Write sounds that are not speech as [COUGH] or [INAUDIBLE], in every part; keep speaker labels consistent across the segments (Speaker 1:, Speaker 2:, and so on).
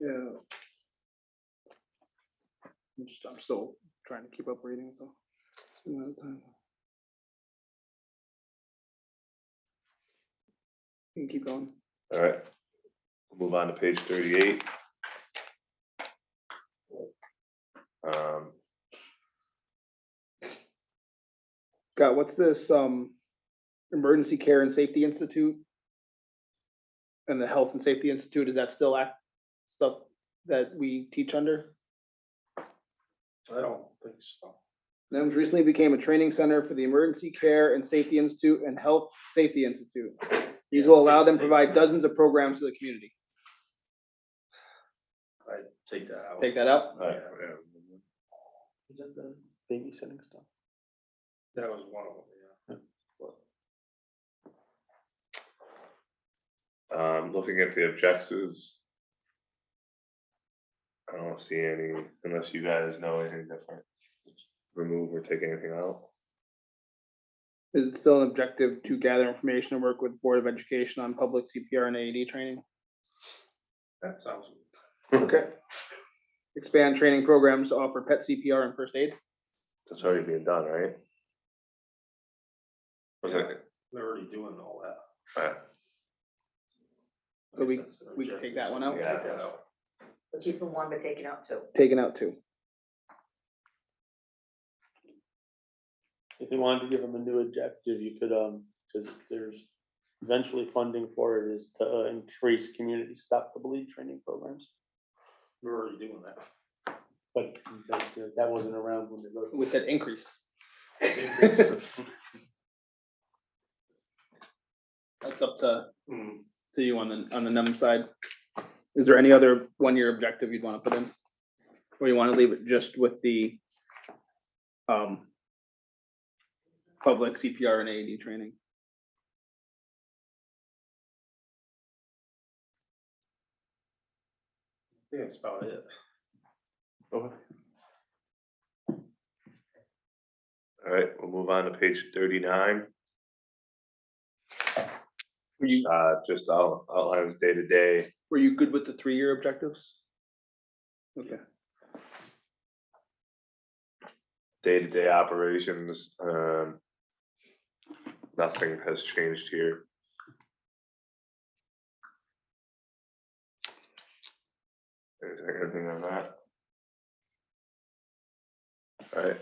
Speaker 1: Yeah. I'm just, I'm still trying to keep up reading, so. You can keep going.
Speaker 2: All right. Move on to page thirty-eight. Um,
Speaker 1: Scott, what's this, um, Emergency Care and Safety Institute? And the Health and Safety Institute, is that still act, stuff that we teach under?
Speaker 3: I don't think so.
Speaker 1: NIMS recently became a training center for the Emergency Care and Safety Institute and Health Safety Institute. These will allow them to provide dozens of programs to the community.
Speaker 3: I take that out.
Speaker 1: Take that out?
Speaker 2: all right,
Speaker 3: Is that the-
Speaker 4: babysitting stuff.
Speaker 3: That was one of them, yeah.
Speaker 2: Um, looking at the objectives. I don't see any, unless you guys know anything different. Remove or take anything out.
Speaker 1: Is it still an objective to gather information and work with Board of Education on public CPR and AED training?
Speaker 3: That sounds,
Speaker 2: Okay.
Speaker 1: Expand training programs to offer pet CPR and first aid?
Speaker 2: That's already being done, right? Was it?
Speaker 3: they're already doing all that.
Speaker 2: All right.
Speaker 1: So we-
Speaker 3: I guess that's an
Speaker 1: we can take
Speaker 3: objective,
Speaker 1: that
Speaker 3: so
Speaker 1: one
Speaker 3: we
Speaker 1: out?
Speaker 3: can Take that out.
Speaker 5: We're keeping one, but taking out two.
Speaker 1: Taken out too.
Speaker 4: If you wanted to give them a new objective, you could, um, because there's eventually funding for it is to uh, increase community stop the bleed training programs.
Speaker 3: We're already doing that.
Speaker 4: But that- that wasn't around when they wrote. it.
Speaker 1: We said increase. [LAUGHS] That's up to,
Speaker 6: Mm-hmm.
Speaker 3: Hmm,
Speaker 1: to you on the, on the NEM side. Is there any other one-year objective you'd want to put in? Or you want to leave it just with the um, public CPR and AED training?
Speaker 3: I think That's about it.
Speaker 2: All right, we'll move on to page thirty-nine.
Speaker 1: Were you,
Speaker 2: Uh, just out- outlines day-to-day.
Speaker 1: were you good with the three-year objectives? Okay,
Speaker 2: day-to-day operations, um, nothing has changed here. Is there anything on that? Alright.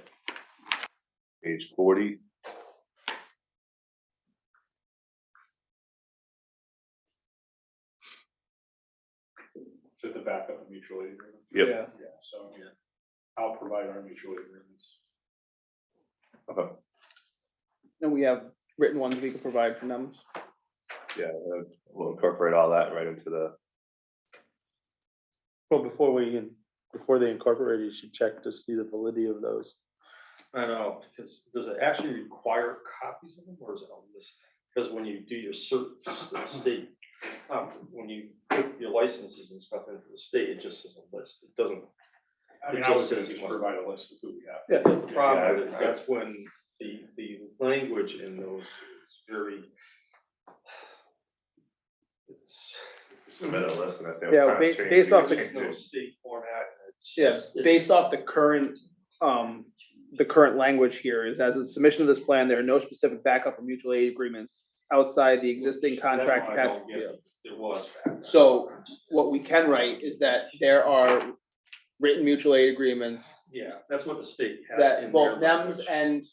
Speaker 2: Page forty.
Speaker 6: Just the backup of mutual aid agreement.
Speaker 2: Yep.
Speaker 1: Yeah.
Speaker 6: Yeah, so
Speaker 3: Yeah.
Speaker 6: I'll provide our mutual aid agreements.
Speaker 1: and we have written ones we can provide for NEMs.
Speaker 2: Yeah, uh, we'll incorporate all that right into the,
Speaker 4: Well, before we, in- before they incorporate, it, you should check to see the validity of those.
Speaker 3: I know, because does it actually require copies of them or is it a list? Because when you do your search, the state, um, when you put your licenses and stuff into the state, it just says a list. It doesn't
Speaker 6: I
Speaker 3: It
Speaker 6: mean, I
Speaker 3: just
Speaker 6: was gonna
Speaker 3: says you
Speaker 6: just
Speaker 3: must-
Speaker 6: provide a list of who we have.
Speaker 3: Because the problem
Speaker 2: Yeah, I-
Speaker 3: is, that's when the, the language in those is very. It's.
Speaker 2: the middle list and I think.
Speaker 1: Yeah,
Speaker 2: we'll
Speaker 1: ba-
Speaker 2: kinda change-
Speaker 1: based
Speaker 2: we
Speaker 1: off
Speaker 2: can
Speaker 1: the-
Speaker 3: There's
Speaker 2: change
Speaker 3: no
Speaker 2: it.
Speaker 3: state format. and it's
Speaker 1: Yes,
Speaker 3: just- it-
Speaker 1: based off the current, um, the current language here is as a submission of this plan, there are no specific backup or mutual aid agreements outside the existing
Speaker 3: That one
Speaker 1: contract.
Speaker 3: I
Speaker 1: attached-
Speaker 3: don't get,
Speaker 1: yeah.
Speaker 3: There was. back then.
Speaker 1: So, What we can write is that there are written mutual aid agreements
Speaker 3: Yeah, that's what the state has. in
Speaker 1: that
Speaker 3: their
Speaker 1: both NEMs
Speaker 3: language.
Speaker 1: and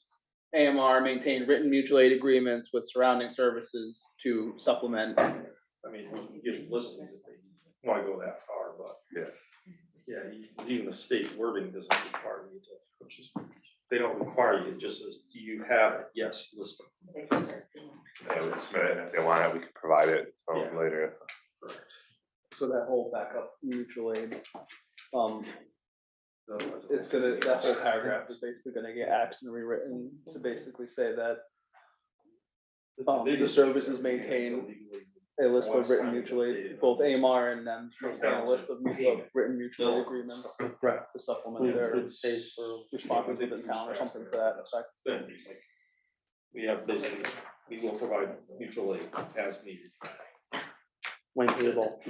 Speaker 1: AMR maintain written mutual aid agreements with surrounding services to supplement.
Speaker 3: I mean, we can get listings if they wanna go that far, but.
Speaker 2: Yeah.
Speaker 3: Yeah, you- even the state wording doesn't require you to, which is, they don't require you, it just says, do you have it? Yes, list them.
Speaker 2: Yeah, we can submit it, and If they want it, we can provide it um,
Speaker 3: Yeah.
Speaker 2: later.
Speaker 1: So that whole backup mutual aid, um,
Speaker 3: Otherwise,
Speaker 1: it's gonna, that whole
Speaker 3: it's-
Speaker 1: paragraph is basically gonna get axed and rewritten to basically say that Um, the
Speaker 3: biggest
Speaker 1: service
Speaker 3: issue
Speaker 1: is
Speaker 3: I mean,
Speaker 1: maintained
Speaker 3: it's illegally-
Speaker 1: a list
Speaker 3: Once
Speaker 1: of written
Speaker 3: signed,
Speaker 1: mutual
Speaker 3: they-
Speaker 1: aid, both AMR and them,
Speaker 3: Comes
Speaker 1: maintain
Speaker 3: down
Speaker 1: a
Speaker 3: to
Speaker 1: list of mutual, of
Speaker 3: payment.
Speaker 1: written mutual aid
Speaker 3: Bill.
Speaker 1: agreements
Speaker 4: Right.
Speaker 1: to supplement their
Speaker 4: It's pays for
Speaker 1: responsibility to the town or something for that effect.
Speaker 3: Then it's like, we have basically, we will provide mutual aid as needed.
Speaker 4: length of all.